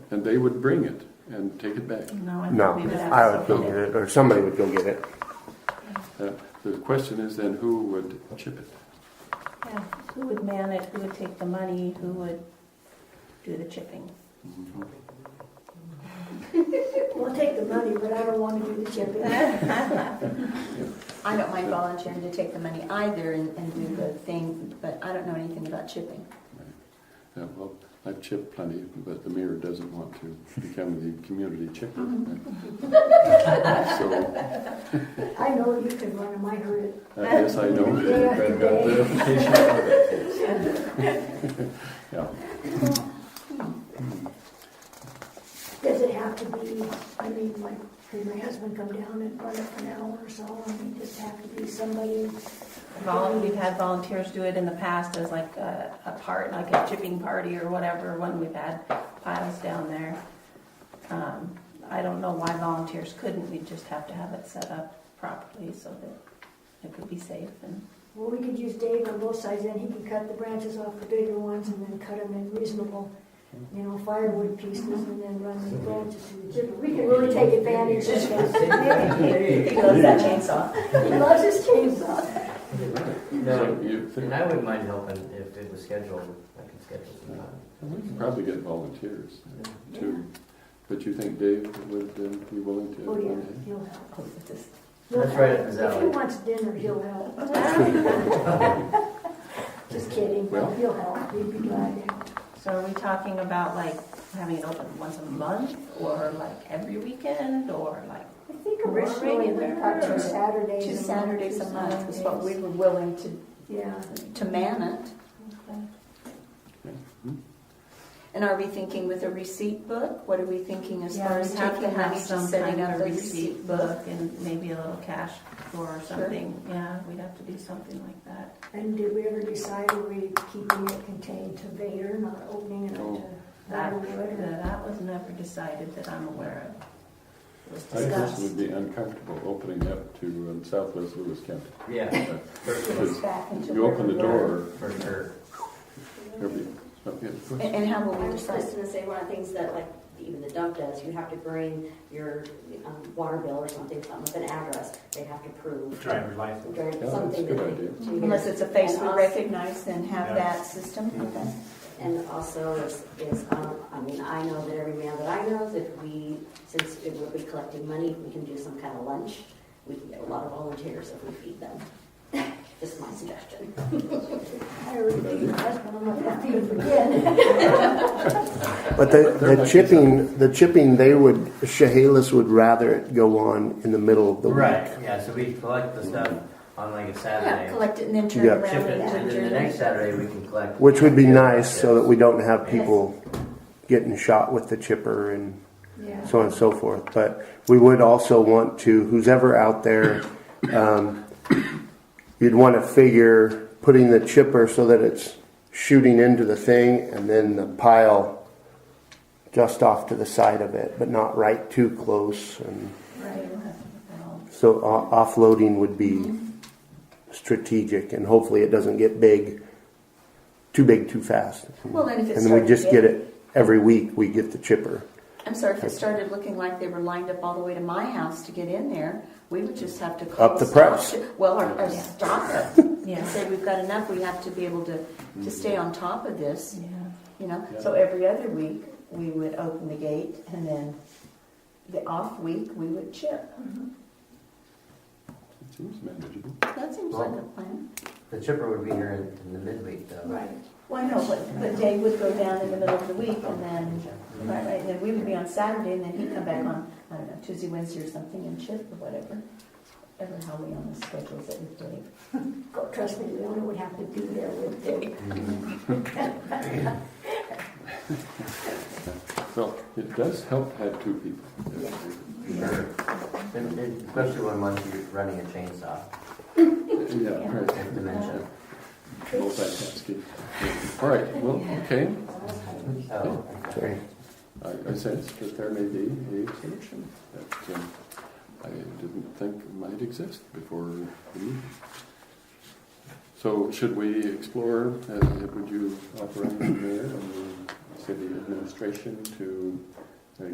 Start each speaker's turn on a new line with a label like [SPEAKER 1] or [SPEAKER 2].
[SPEAKER 1] and they would bring it and take it back.
[SPEAKER 2] No, I
[SPEAKER 3] No,
[SPEAKER 2] think we would have.
[SPEAKER 3] I would
[SPEAKER 2] to-
[SPEAKER 3] go get it, or somebody would go get it.
[SPEAKER 1] Uh, The question is then who would chip it?
[SPEAKER 2] Yeah, Who would man it, who would take the money, who would do the chipping?
[SPEAKER 4] We'll take the money, but I don't want to do the chipping.
[SPEAKER 5] I don't mind volunteering to take the money either and, and do the thing, but I don't know anything about chipping.
[SPEAKER 1] Yeah, Uh, well, I've chipped plenty, but the mayor doesn't want to become the community chipper.
[SPEAKER 4] Mm-hmm.
[SPEAKER 1] So uh,
[SPEAKER 4] I know you can run them, I heard it.
[SPEAKER 1] I guess I know.
[SPEAKER 4] Yeah.
[SPEAKER 1] I've got verification. Yeah, Hmm,
[SPEAKER 4] Does it have to be, I mean, like, can your husband come down and run it for an hour or so? I mean, does it have to be somebody?
[SPEAKER 2] Vol- We've had volunteers do it in the past as like a, a part, like a chipping party or whatever, when we've had piles down there. Um, I don't know why volunteers couldn't, we'd just have to have it set up properly so that it could be safe and.
[SPEAKER 4] Well, we could use Dave on both sides, then he can cut the branches off the bigger ones and then cut them in reasonable, you know, firewood pieces and then run the branches through the chipper. We can really take advantage of that.
[SPEAKER 5] He loves that chainsaw.
[SPEAKER 4] He loves his chainsaw.
[SPEAKER 1] so
[SPEAKER 6] No,
[SPEAKER 1] you think,
[SPEAKER 6] and I wouldn't mind helping if it was scheduled, I could schedule some time.
[SPEAKER 1] we can probably get volunteers too. But you think Dave would um, be willing to?
[SPEAKER 4] Oh, yeah, he'll help.
[SPEAKER 6] That's right up his
[SPEAKER 4] If he
[SPEAKER 6] alley.
[SPEAKER 4] wants dinner, he'll help. Just kidding,
[SPEAKER 1] Well-
[SPEAKER 4] he'll help, he'd be glad to.
[SPEAKER 2] So are we talking about like having it open once a month or like every weekend or like?
[SPEAKER 4] I think
[SPEAKER 2] Or
[SPEAKER 4] originally we
[SPEAKER 2] regular,
[SPEAKER 4] had
[SPEAKER 2] or-
[SPEAKER 4] two Saturdays.
[SPEAKER 5] Two
[SPEAKER 4] a month,
[SPEAKER 5] Saturdays
[SPEAKER 4] two
[SPEAKER 5] a month was what we
[SPEAKER 4] Saturdays.
[SPEAKER 5] were willing to,
[SPEAKER 4] Yeah,
[SPEAKER 5] to man it. And are we thinking with a receipt book? What are we thinking as far as
[SPEAKER 2] we have to
[SPEAKER 5] taking
[SPEAKER 2] have
[SPEAKER 5] money to
[SPEAKER 2] some
[SPEAKER 5] setting
[SPEAKER 2] kind
[SPEAKER 5] up
[SPEAKER 2] of
[SPEAKER 5] the receipt book?
[SPEAKER 2] And maybe a little cash or something, yeah, we'd have to do something like that.
[SPEAKER 4] and did we ever decide were we keeping it contained to Vader, not opening it up
[SPEAKER 1] No.
[SPEAKER 4] to
[SPEAKER 2] That,
[SPEAKER 5] uh,
[SPEAKER 4] Riderwood?
[SPEAKER 2] that was never decided that I'm aware of. It was
[SPEAKER 1] I just
[SPEAKER 2] discussed.
[SPEAKER 1] would be uncomfortable opening up to um, Southwest Lewis County.
[SPEAKER 6] Yeah,
[SPEAKER 1] Uh,
[SPEAKER 6] for sure,
[SPEAKER 5] It's back into
[SPEAKER 1] You open the
[SPEAKER 5] where we were.
[SPEAKER 1] door,
[SPEAKER 6] for sure.
[SPEAKER 1] there'll be, oh, yeah.
[SPEAKER 5] And, and how will
[SPEAKER 7] I
[SPEAKER 5] we
[SPEAKER 7] was
[SPEAKER 5] decide?
[SPEAKER 7] just gonna say, one of the things that like even the dump does, you have to bring your um, water bill or something, something with an address, they have to prove.
[SPEAKER 8] driver's license.
[SPEAKER 7] Drive-
[SPEAKER 1] that's a
[SPEAKER 7] something
[SPEAKER 1] good
[SPEAKER 7] that they-
[SPEAKER 1] idea.
[SPEAKER 7] to-
[SPEAKER 5] Unless it's a face we
[SPEAKER 7] And us-
[SPEAKER 5] recognize, then have
[SPEAKER 8] Yeah.
[SPEAKER 5] that system, okay?
[SPEAKER 7] And also is, is, um, I mean, I know that every man that I know, is if we, since it will be collecting money, we can do some kind of lunch. We can get a lot of volunteers if we feed them. Just my suggestion.
[SPEAKER 4] I already beat your husband, I'm not gonna beat him again.
[SPEAKER 3] But the, the chipping, the chipping, they would, Chehalis would rather it go on in the middle of the
[SPEAKER 6] Right,
[SPEAKER 3] week.
[SPEAKER 6] yeah, so we collect the stuff on like a
[SPEAKER 5] Yeah,
[SPEAKER 6] Saturday,
[SPEAKER 5] collect it and then turn
[SPEAKER 3] Yeah.
[SPEAKER 5] around
[SPEAKER 6] ship it,
[SPEAKER 5] and
[SPEAKER 6] and then the next Saturday we can collect.
[SPEAKER 3] Which would be nice so that we
[SPEAKER 6] Yes.
[SPEAKER 3] don't have people getting shot with the chipper and
[SPEAKER 4] Yeah.
[SPEAKER 3] so on and so forth. But we would also want to, who's ever out there, um, you'd want to figure putting the chipper so that it's shooting into the thing and then the pile just off to the side of it, but not right too close. And
[SPEAKER 2] Right, we'll have to look at all.
[SPEAKER 3] so o- offloading would be strategic, and hopefully it doesn't get big, too big too fast.
[SPEAKER 5] Well, then if it
[SPEAKER 3] and then we
[SPEAKER 5] started
[SPEAKER 3] just get
[SPEAKER 5] getting-
[SPEAKER 3] it every week. We get the chipper.
[SPEAKER 5] I'm sorry, if it started looking like they were lined up all the way to my house to get in there, we would just have to call.
[SPEAKER 3] Up the
[SPEAKER 5] a stop
[SPEAKER 3] price.
[SPEAKER 5] to- Well, or, or
[SPEAKER 2] Yeah.
[SPEAKER 5] stop it and
[SPEAKER 2] Yeah,
[SPEAKER 5] say, we've got enough, we have to be able to,
[SPEAKER 3] Mm-hmm.
[SPEAKER 5] to stay on top of this,
[SPEAKER 2] yeah.
[SPEAKER 5] you know? So every other week, we would open the gate and then the off week, we would chip.
[SPEAKER 1] It seems manageable.
[SPEAKER 5] That seems like a plan.
[SPEAKER 6] The chipper would be here in, in the midweek though.
[SPEAKER 4] Right.
[SPEAKER 5] Well, I know, but, but Dave would go down in the middle of the week and then,
[SPEAKER 6] Mm-hmm.
[SPEAKER 5] right, right, and then we would be on Saturday and then he'd come back on, I don't know, Tuesday, Wednesday or something and chip or whatever. Ever how we on the schedules it with Dave.
[SPEAKER 4] Oh, Trust me, Leona would have to be there with Dave.
[SPEAKER 1] Well, it does help to have two people.
[SPEAKER 6] Sure. And- and Especially when once you're running a chainsaw,
[SPEAKER 1] Yeah, right.
[SPEAKER 6] with dementia.
[SPEAKER 1] Multitasking. All right, well, okay.
[SPEAKER 6] Oh,
[SPEAKER 3] Sorry.
[SPEAKER 1] I, I sense that there may be a solution that um, I didn't think might exist before the meeting. So should we explore, uh, would you authorize the mayor and the city administration to